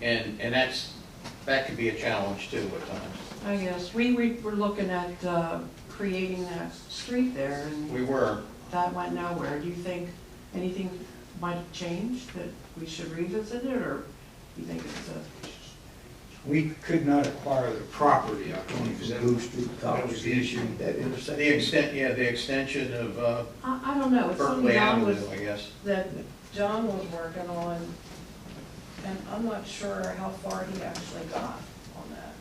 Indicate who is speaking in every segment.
Speaker 1: And, and that's, that could be a challenge too at times.
Speaker 2: I guess, we we were looking at uh, creating that street there, and
Speaker 1: We were,
Speaker 2: that went nowhere. Do you think anything might have changed, that we should revisit it, or you think it's a,
Speaker 3: We could not acquire the property out
Speaker 4: Only
Speaker 3: of
Speaker 4: for
Speaker 3: that.
Speaker 4: Blue Street College.
Speaker 3: That was the issue.
Speaker 4: That intersection.
Speaker 1: the extent, yeah, the extension of uh,
Speaker 2: I, I don't know, it's something
Speaker 1: Berkeley
Speaker 2: John
Speaker 1: Avenue,
Speaker 2: was,
Speaker 1: I guess.
Speaker 2: that John was working on, and I'm not sure how far he actually got on that.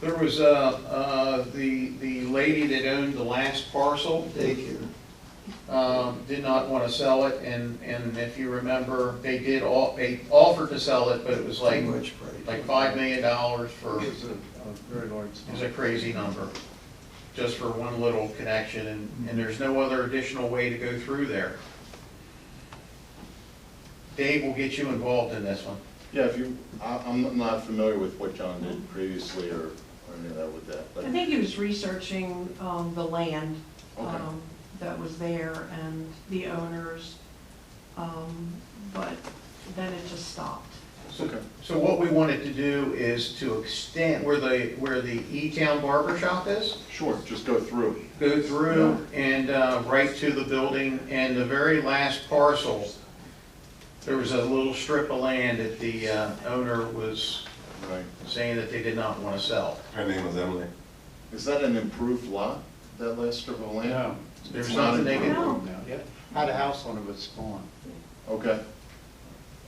Speaker 1: There was, uh, uh, the, the lady that owned the last parcel,
Speaker 4: Daycare.
Speaker 1: um, did not want to sell it, and, and if you remember, they did, all they offered to sell it, but it was like,
Speaker 4: Too much price.
Speaker 1: like five million dollars for,
Speaker 5: It's a a very large.
Speaker 1: it was a crazy number, just for one little connection, and, and there's no other additional way to go through there. Dave will get you involved in this one.
Speaker 6: Yeah, if you, I- I'm not familiar with what John did previously or or any of that with that, but
Speaker 2: I think he was researching um, the land
Speaker 6: Okay.
Speaker 2: um, that was there and the owners, um, but then it just stopped.
Speaker 6: Okay.
Speaker 1: So what we wanted to do is to extend where the, where the E-Town Barber Shop is,
Speaker 6: sure, just go through.
Speaker 1: go through and uh, right to the building, and the very last parcel, there was a little strip of land that the uh, owner was
Speaker 6: Right.
Speaker 1: saying that they did not want to sell.
Speaker 7: Her name was Emily.
Speaker 6: Is that an improved lot, that last strip of land?
Speaker 5: No,
Speaker 1: There's nothing they can,
Speaker 2: No.
Speaker 5: no, yeah, had a house on it, but it's gone.
Speaker 6: Okay.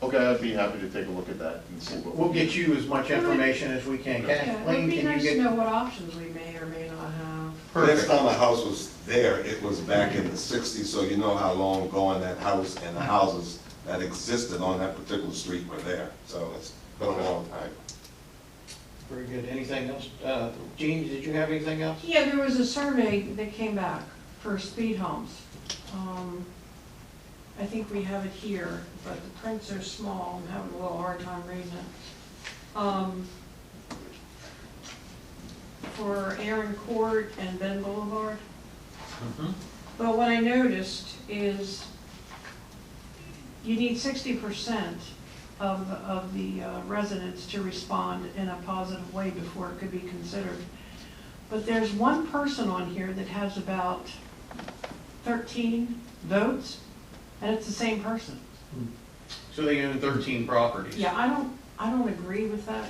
Speaker 6: Okay, I'd be happy to take a look at that and see what.
Speaker 1: we'll get you as much information as we can.
Speaker 2: Yeah, It would
Speaker 1: Kathleen,
Speaker 2: be
Speaker 1: can
Speaker 2: nice to
Speaker 1: you
Speaker 2: know
Speaker 1: get?
Speaker 2: what options we may or may not have.
Speaker 7: Last
Speaker 1: Perfect.
Speaker 7: time the house was there, it was back in the sixties, so you know how long gone that house and the houses that existed on that particular street were there. So it's been a long time.
Speaker 1: Very good. Anything else? Uh, Gene, did you have anything else?
Speaker 2: Yeah, there was a survey that came back for speed humps. Um, I think we have it here, but the prints are small, I'm having a little hard time reading it. Um, For Aaron Court and Ben Boulevard. But what I noticed is you need sixty percent of, of the uh, residents to respond in a positive way before it could be considered. But there's one person on here that has about thirteen votes, and it's the same person.
Speaker 1: So they own 13 properties.
Speaker 2: Yeah, I don't, I don't agree with that.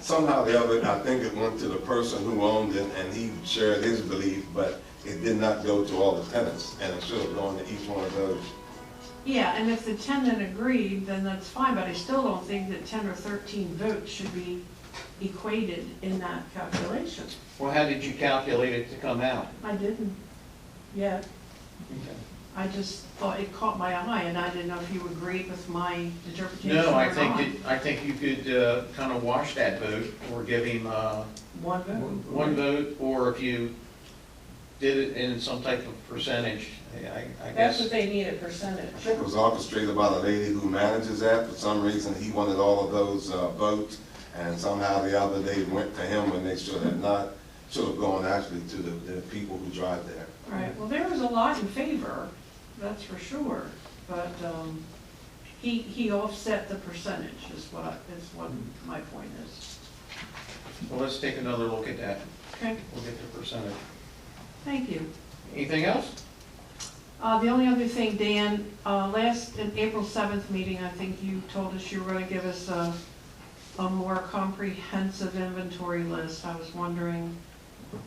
Speaker 7: Somehow the other, I think it went to the person who owned it and he shared his belief, but it did not go to all the tenants. And it should have gone to each one of those.
Speaker 2: Yeah, and if the tenant agreed, then that's fine, but I still don't think that ten or thirteen votes should be equated in that calculation.
Speaker 1: Well, how did you calculate it to come out?
Speaker 2: I didn't, yet. I just thought it caught my eye, and I didn't know if you agreed with my interpretation or
Speaker 1: No, I
Speaker 2: not.
Speaker 1: think, that- I think you could uh, kind of wash that vote or give him uh,
Speaker 2: One vote.
Speaker 1: one vote, or if you did it in some type of percentage, I I
Speaker 2: That's
Speaker 1: guess.
Speaker 2: what they need, a percentage.
Speaker 7: I think it was orchestrated by the lady who manages that. For some reason, he wanted all of those uh, votes, and somehow the other they went to him when they should have not, should have gone actually to the, the people who drive there.
Speaker 2: Right, well, there was a lot in favor, that's for sure, but, um, he, he offset the percentage is what, I- is what
Speaker 1: Mm-hmm.
Speaker 2: my point is.
Speaker 1: Well, let's take another look at that.
Speaker 2: Okay,
Speaker 1: We'll get the percentage.
Speaker 2: thank you.
Speaker 1: Anything else?
Speaker 2: Uh, the only other thing, Dan, uh, last, in April seventh meeting, I think you told us you were gonna give us a, a more comprehensive inventory list. I was wondering,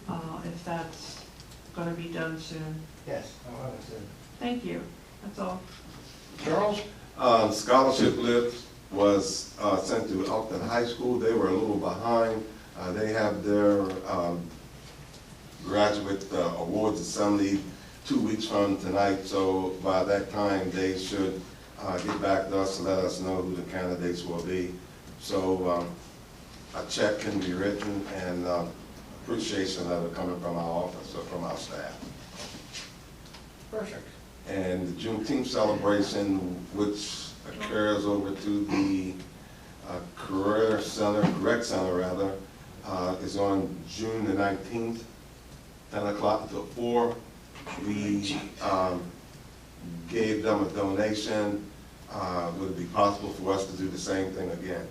Speaker 2: uh, if that's gonna be done soon.
Speaker 4: Yes, I'll have it soon.
Speaker 2: Thank you, that's all.
Speaker 1: Charles?
Speaker 7: Uh, Scholarship list was uh, sent to Elkton High School. They were a little behind. Uh, They have their um, graduate uh, awards assembly two weeks from tonight, so by that time, they should uh, get back to us and let us know who the candidates will be. So um, a check can be written and um, appreciation letter coming from our office or from our staff.
Speaker 1: Perfect.
Speaker 7: And the Juneteenth celebration, which occurs over to the uh, Career Center, Rec Center rather, uh, is on June the nineteenth, ten o'clock to four. We um, gave them a donation. Uh, Would it be possible for us to do the same thing again?